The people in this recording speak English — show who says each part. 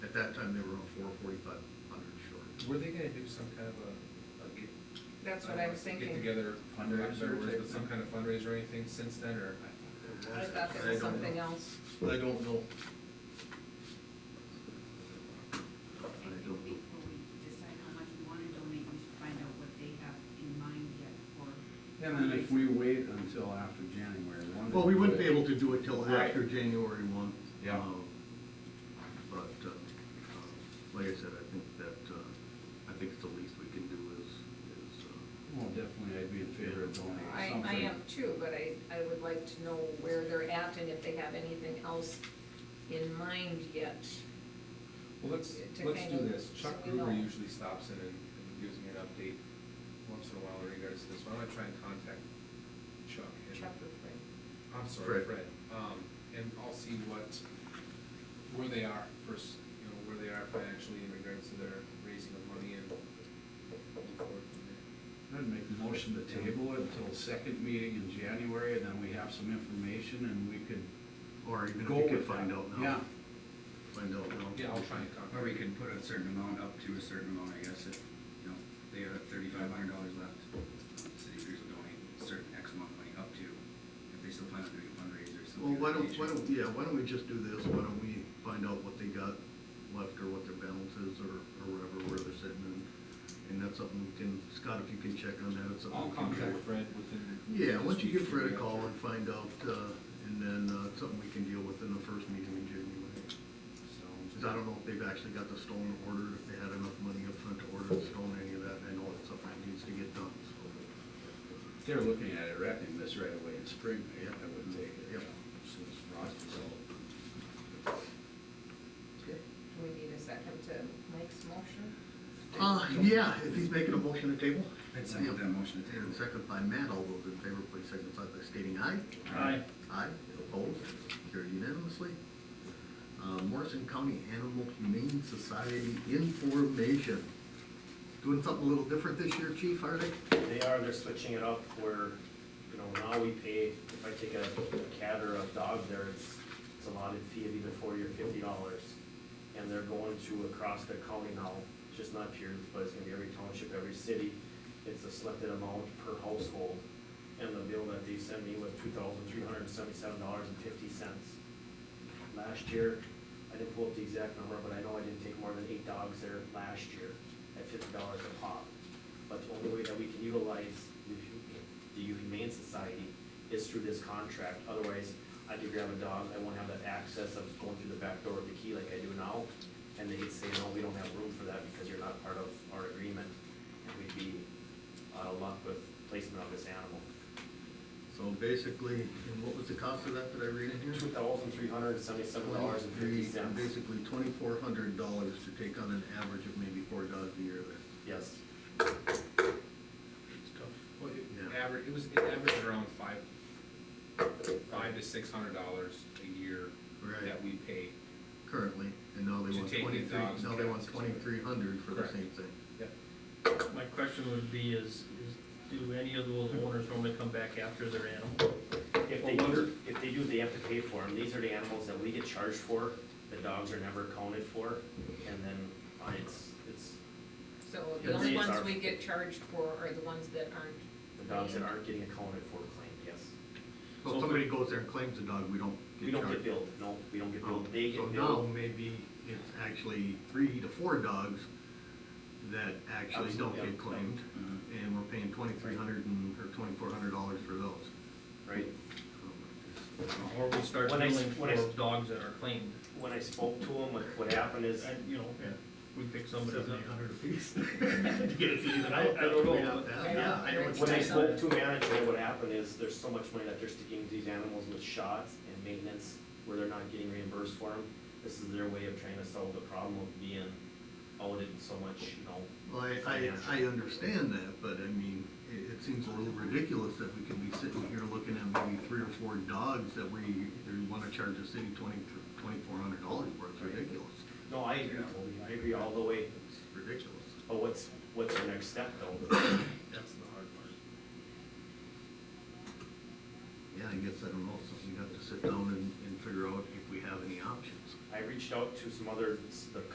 Speaker 1: at that time, they were on four forty-five hundred short.
Speaker 2: Were they gonna do some kind of a, a get?
Speaker 3: That's what
Speaker 2: don't
Speaker 3: I
Speaker 2: know,
Speaker 3: was thinking.
Speaker 2: Get together fundraiser,
Speaker 4: Fundraiser
Speaker 2: was
Speaker 4: type
Speaker 2: it some
Speaker 4: thing.
Speaker 2: kind of fundraiser or anything since then, or?
Speaker 3: I thought there
Speaker 1: I don't
Speaker 3: was something
Speaker 1: know.
Speaker 3: else.
Speaker 1: I don't know.
Speaker 5: I think before we decide how much we want to donate, we should find out what they have in mind yet for.
Speaker 4: And then if we wait until after January one.
Speaker 1: Well, we wouldn't be able to do it till
Speaker 4: Right.
Speaker 1: after January one.
Speaker 4: Yeah.
Speaker 1: Um, But, uh, uh, like I said, I think that, uh, I think it's the least we can do is, is, uh,
Speaker 4: Well, definitely, I'd be in favor of donating
Speaker 3: I,
Speaker 4: something.
Speaker 3: I am too, but I, I would like to know where they're at and if they have anything else in mind yet.
Speaker 2: Well, let's,
Speaker 3: To
Speaker 2: let's
Speaker 3: kind
Speaker 2: do
Speaker 3: of-
Speaker 2: this, Chuck
Speaker 3: so we know.
Speaker 2: Gruber usually stops in and and gives me an update once in a while in regards to this, why don't I try and contact Chuck? and-
Speaker 3: Chuck or Fred?
Speaker 2: I'm
Speaker 1: Fred.
Speaker 2: sorry, Fred, um, and I'll see what, where they are first, you know, where they are financially in regards to their raising of money and. look forward from there.
Speaker 4: I'd make a motion to table it until second meeting in January, and then we have some information and we could
Speaker 1: or even if
Speaker 4: go with
Speaker 1: you
Speaker 4: that.
Speaker 1: could find out now.
Speaker 4: Yeah,
Speaker 1: Find out now.
Speaker 2: Yeah, I'll try and contact.
Speaker 6: Or we can put a certain amount up to a certain amount, I guess, if, you know, they have thirty-five hundred dollars left. um, City Pierce will donate a certain X amount of money up to, if they still plan on doing a fundraiser or something.
Speaker 1: Well, why
Speaker 6: of that
Speaker 1: don't, why
Speaker 6: nature.
Speaker 1: don't, yeah, why don't we just do this, why don't we find out what they got left or what their balance is or, or whatever, where they're sitting and, and that's something we can, Scott, if you can check on that, it's something.
Speaker 2: I'll
Speaker 1: we can
Speaker 2: contact
Speaker 1: check.
Speaker 2: Fred within.
Speaker 1: Yeah, once you give
Speaker 2: this week,
Speaker 1: Fred a
Speaker 2: yeah,
Speaker 1: call
Speaker 2: sure.
Speaker 1: and find out, uh, and then, uh, it's something we can deal with in the first meeting in January. Cause
Speaker 4: so.
Speaker 1: I don't know if they've actually got the stone ordered, if they had enough money up front to order the stone, any of that, I know it's something that needs to get done, so.
Speaker 4: They're looking at erecting this right away in spring, I I would take it.
Speaker 1: Yep.
Speaker 4: Since frost is out.
Speaker 1: Okay.
Speaker 3: Do we need a second to Mike's motion?
Speaker 1: Uh, yeah, if he's making a motion to table.
Speaker 6: I'd second that motion to table.
Speaker 1: And second by Matt, all those in favor, please signify by stating aye.
Speaker 4: Aye.
Speaker 1: Aye, opposed, carried unanimously. Uh, Morrison County Animal Humane Society information. Doing something a little different this year, chief, are they?
Speaker 7: They are, they're switching it up where, you know, now we pay, if I take a a cat or a dog there, it's, it's a allotted fee of either forty or fifty dollars. And they're going to across the county now, just not Pierce, but it's gonna be every township, every city. It's a selected amount per household. And the bill that they sent me was two thousand three hundred and seventy-seven dollars and fifty cents. Last year, I didn't pull up the exact number, but I know I didn't take more than eight dogs there last year at fifty dollars a pop. But the only way that we can utilize the hu- the Humane Society is through this contract. Otherwise, I do grab a dog, I won't have that access of going through the back door with the key like I do now. And they'd say, no, we don't have room for that because you're not part of our agreement. And we'd be out of luck with placement of this animal.
Speaker 1: So basically, and what was the cost of that that I read in here?
Speaker 7: Two thousand three hundred and seventy-seven dollars and fifty cents.
Speaker 1: Basically twenty-four hundred dollars to take on an average of maybe four dogs a year there.
Speaker 7: Yes.
Speaker 2: It's tough. Well, it
Speaker 1: Yeah.
Speaker 2: average, it was, it averaged around five, five to six hundred dollars a year
Speaker 1: Right.
Speaker 2: that we pay.
Speaker 1: currently, and now they
Speaker 2: To
Speaker 1: want
Speaker 2: take the
Speaker 1: twenty-three,
Speaker 2: dogs
Speaker 1: now they want
Speaker 2: cats, et cetera.
Speaker 1: twenty-three hundred for the
Speaker 2: Correct.
Speaker 1: same thing.
Speaker 8: My question would be is, is do any of those owners normally come back after their animal?
Speaker 7: If they do, if they do, they have to pay for them. These are the animals that we get charged for, the dogs are never accounted for, and then uh, it's, it's
Speaker 3: So
Speaker 7: Yeah,
Speaker 3: the only
Speaker 7: these
Speaker 3: ones
Speaker 7: are-
Speaker 3: we get charged for are the ones that aren't.
Speaker 7: the dogs that aren't getting accounted for claim, yes.
Speaker 1: So if somebody goes there and claims a dog, we don't
Speaker 7: We
Speaker 1: get
Speaker 7: don't
Speaker 1: charged.
Speaker 7: get billed, no, we don't get
Speaker 1: Oh,
Speaker 7: billed, they
Speaker 1: So
Speaker 7: get
Speaker 1: now
Speaker 7: billed.
Speaker 1: maybe it's actually three to four dogs that actually don't
Speaker 7: Absolutely,
Speaker 1: get
Speaker 7: yeah. Mm-hmm.
Speaker 1: claimed, and we're paying twenty-three hundred and, or twenty-four hundred dollars for those.
Speaker 7: Right.
Speaker 8: Or we start
Speaker 7: When I s-
Speaker 8: billing
Speaker 7: when I
Speaker 8: for
Speaker 7: s-
Speaker 8: dogs that are claimed?
Speaker 7: When I spoke to them, what, what happened is,
Speaker 8: And, you know, we pick somebody up.
Speaker 1: Seventy-eight hundred apiece.
Speaker 8: I, I don't know.
Speaker 1: Yeah, I know what
Speaker 7: when I
Speaker 1: you're saying.
Speaker 7: spoke to management, what happened is, there's so much money that they're sticking these animals with shots and maintenance, where they're not getting reimbursed for them. This is their way of trying to solve the problem of being owed it so much, you know,
Speaker 1: Well, I, I, I understand that, but I mean, it, it seems a little ridiculous that we could be sitting here looking at maybe three or four dogs that we, we wanna charge the city twenty, twenty-four hundred dollars for, it's ridiculous.
Speaker 7: No, I agree, Toby, I agree all the way,
Speaker 1: It's ridiculous.
Speaker 7: but what's, what's your next step though?
Speaker 2: That's the hard part.
Speaker 1: Yeah, I guess, I don't know, so we have to sit down and, and figure out if we have any options.
Speaker 7: I reached out to some other, s- the